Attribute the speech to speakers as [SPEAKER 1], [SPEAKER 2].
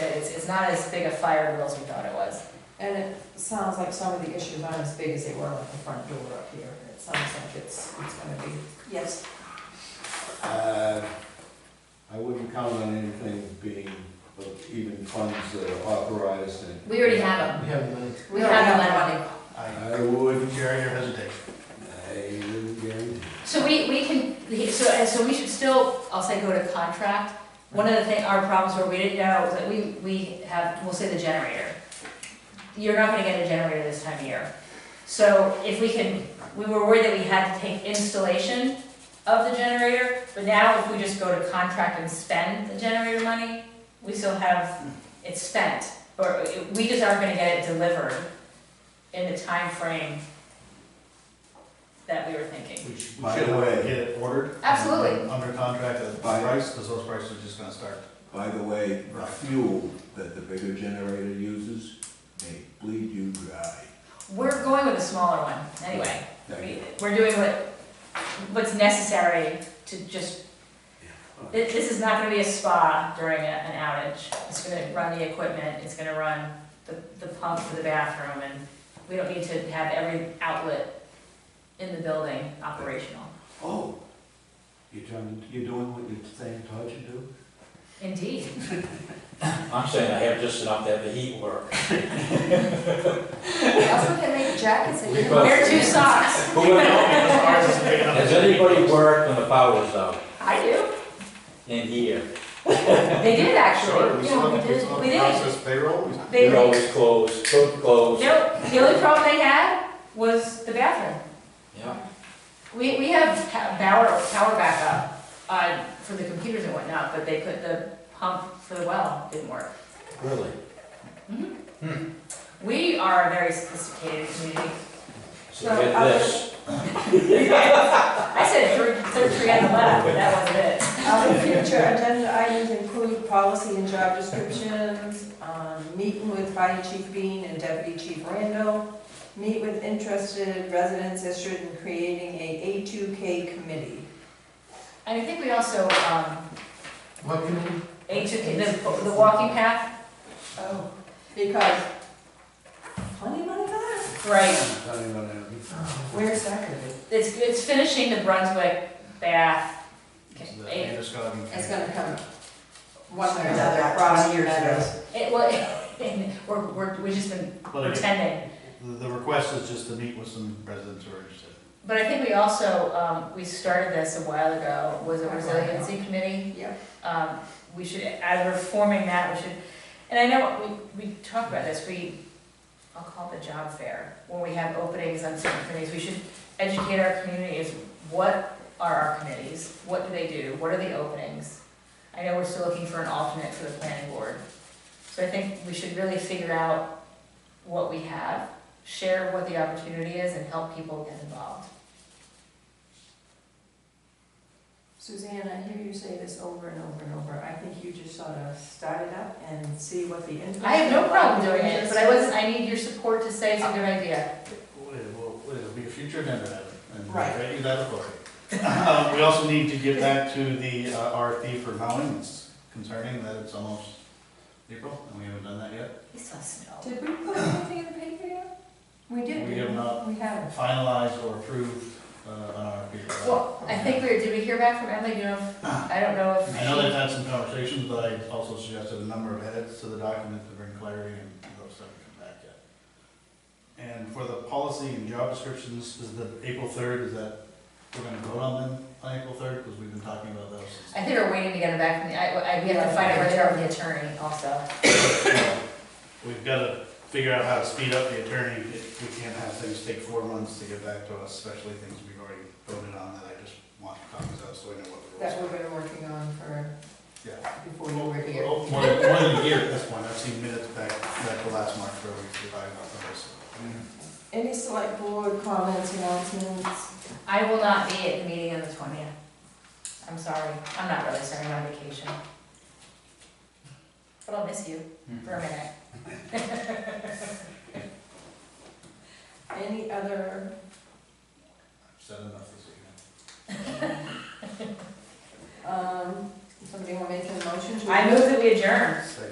[SPEAKER 1] it's not as big a fire drill as we thought it was.
[SPEAKER 2] And it sounds like some of the issues aren't as big as they were like the front door up here. It sounds like it's, it's gonna be,
[SPEAKER 3] Yes,
[SPEAKER 4] Uh, I wouldn't count on anything being, even funds that are authorized and.
[SPEAKER 1] We already have them.
[SPEAKER 5] We have the money.
[SPEAKER 1] We
[SPEAKER 2] No,
[SPEAKER 1] have
[SPEAKER 2] we
[SPEAKER 1] the
[SPEAKER 2] have
[SPEAKER 1] money.
[SPEAKER 5] I,
[SPEAKER 4] I would,
[SPEAKER 5] Jerry, your hesitation.
[SPEAKER 4] I would guarantee.
[SPEAKER 1] So we, we can, so, so we should still, I'll say go to contract. One of the thing, our problems were we didn't know, was that we, we have, we'll say the generator. You're not gonna get a generator this time of year. So if we can, we were worried that we had to take installation of the generator, but now if we just go to contract and spend the generator money, we still have, it's spent. Or we just aren't gonna get it delivered in the time frame that we were thinking.
[SPEAKER 5] We should, we
[SPEAKER 4] By
[SPEAKER 5] should
[SPEAKER 4] the way-
[SPEAKER 5] get it ordered.
[SPEAKER 1] Absolutely.
[SPEAKER 5] Under contract at the
[SPEAKER 4] By-
[SPEAKER 5] price, because those prices are just gonna start.
[SPEAKER 4] By the way, the
[SPEAKER 5] Right.
[SPEAKER 4] fuel that the bigger generator uses, they bleed you dry.
[SPEAKER 1] We're going with a smaller one, anyway.
[SPEAKER 4] Thank you.
[SPEAKER 1] We- We're doing what, what's necessary to just, thi- this is not gonna be a spa during a- an outage. It's gonna run the equipment, it's gonna run the, the pump for the bathroom, and we don't need to have every outlet in the building operational.
[SPEAKER 4] Oh, you're trying, you're doing what you're saying Todd should do?
[SPEAKER 1] Indeed.
[SPEAKER 6] I'm saying I have just enough to have the heat work.
[SPEAKER 3] we also can make jackets
[SPEAKER 6] We
[SPEAKER 3] again.
[SPEAKER 6] both-
[SPEAKER 1] Wear two socks.
[SPEAKER 6] Who would know? Has anybody worked when the power was out
[SPEAKER 1] I do.
[SPEAKER 6] in here?
[SPEAKER 1] They did
[SPEAKER 5] Sure,
[SPEAKER 1] actually.
[SPEAKER 5] we
[SPEAKER 1] Yeah,
[SPEAKER 5] still have
[SPEAKER 1] we
[SPEAKER 5] to, we
[SPEAKER 1] did.
[SPEAKER 5] still have
[SPEAKER 1] We
[SPEAKER 5] to
[SPEAKER 1] did.
[SPEAKER 5] process payroll. We-
[SPEAKER 1] They
[SPEAKER 6] You're
[SPEAKER 1] did.
[SPEAKER 6] always closed, cooked closed.
[SPEAKER 1] No, the only problem they had was the bathroom.
[SPEAKER 6] Yeah.
[SPEAKER 1] We, we have pa- power, power backup, uh, for the computers and whatnot, but they put the pump for the well, didn't work.
[SPEAKER 6] Really?
[SPEAKER 1] We are a very sophisticated community.
[SPEAKER 6] So
[SPEAKER 2] No,
[SPEAKER 6] get
[SPEAKER 2] I
[SPEAKER 6] this.
[SPEAKER 1] I said three, third tree on the left, but that wasn't it.
[SPEAKER 2] Um, future agenda items include policy and job descriptions, um, meeting with Fire Chief Bean and Deputy Chief Randall, meet with interested residents issued in creating a A2K committee.
[SPEAKER 1] And I think we also, um,
[SPEAKER 5] What can we?
[SPEAKER 1] A two, the, the walking path,
[SPEAKER 2] Oh. Because plenty of money for that.
[SPEAKER 1] right,
[SPEAKER 4] I'm telling you what I mean.
[SPEAKER 2] Where's that gonna be?
[SPEAKER 1] it's, it's finishing the Brunswick bath.
[SPEAKER 5] The
[SPEAKER 1] It,
[SPEAKER 5] Androscoggin-
[SPEAKER 2] It's gonna come one way or another,
[SPEAKER 3] Back
[SPEAKER 2] across
[SPEAKER 3] 20 years ago.
[SPEAKER 2] years.
[SPEAKER 1] it, well, we're, we're, we've just been
[SPEAKER 5] Well, again,
[SPEAKER 1] pretending.
[SPEAKER 5] The, the request is just to meet with some residents who are interested.
[SPEAKER 1] But I think we also, um, we started this a while ago, was a resiliency committee.
[SPEAKER 2] Yeah.
[SPEAKER 1] Um, we should, as we're forming that, we should, and I know, we, we talked about this, we, I'll call it the job fair, when we have openings on certain committees, we should educate our community as what are our committees? What do they do? What are the openings? I know we're still looking for an alternate for the planning board. So I think we should really figure out what we have, share what the opportunity is, and help people get involved.
[SPEAKER 2] Suzanne, I hear you say this over and over and over. I think you just sort of start it up and see what the input.
[SPEAKER 1] I have no problem doing it, but I wasn't, I need your support to say it's a good idea.
[SPEAKER 5] Well, it'll be a future agenda item. and
[SPEAKER 2] Right.
[SPEAKER 5] grant you that authority. Um, We also need to get back to the uh, RFP for mowing. It's concerning that it's almost April and we haven't done that yet.
[SPEAKER 1] He still snow.
[SPEAKER 2] Did we put anything in the paper yet? We did.
[SPEAKER 5] We have not.
[SPEAKER 2] We haven't.
[SPEAKER 5] Finalized or approved uh, an RFP. for that.
[SPEAKER 1] Well, I think we, did we hear back from Emily, Do you know, if- I don't know if
[SPEAKER 5] I know
[SPEAKER 1] she,
[SPEAKER 5] they've had some conversations, but I also suggested a number of edits to the document to bring clarity and those haven't come back yet. And for the policy and job descriptions, is the April third, is that, we're gonna vote on them on April third, because we've been talking about those since.
[SPEAKER 1] I think we're waiting to get it back from the, I, I, we have to find out where they are with the attorney also.
[SPEAKER 5] We've gotta figure out how to speed up the attorney, It- we can't have things take four months to get back to us, especially things we've already voted on that I just want copies of, so I know what the rules
[SPEAKER 2] That
[SPEAKER 5] are.
[SPEAKER 2] we've been working on for,
[SPEAKER 5] Yeah.
[SPEAKER 2] before you were here.
[SPEAKER 5] Well, More than, more than a year at this point, I've seen minutes back, back to last March where we divided up those.
[SPEAKER 2] Any select board comments, announcements?
[SPEAKER 1] I will not be at the meeting on the twentieth. I'm sorry, I'm not really sorry, I'm on vacation. But I'll miss you for a
[SPEAKER 5] Hmm.
[SPEAKER 1] minute.
[SPEAKER 2] Any other,
[SPEAKER 5] I've said enough this evening.
[SPEAKER 2] um, somebody want to make a motion to?
[SPEAKER 1] I move that we adjourn.
[SPEAKER 5] Second.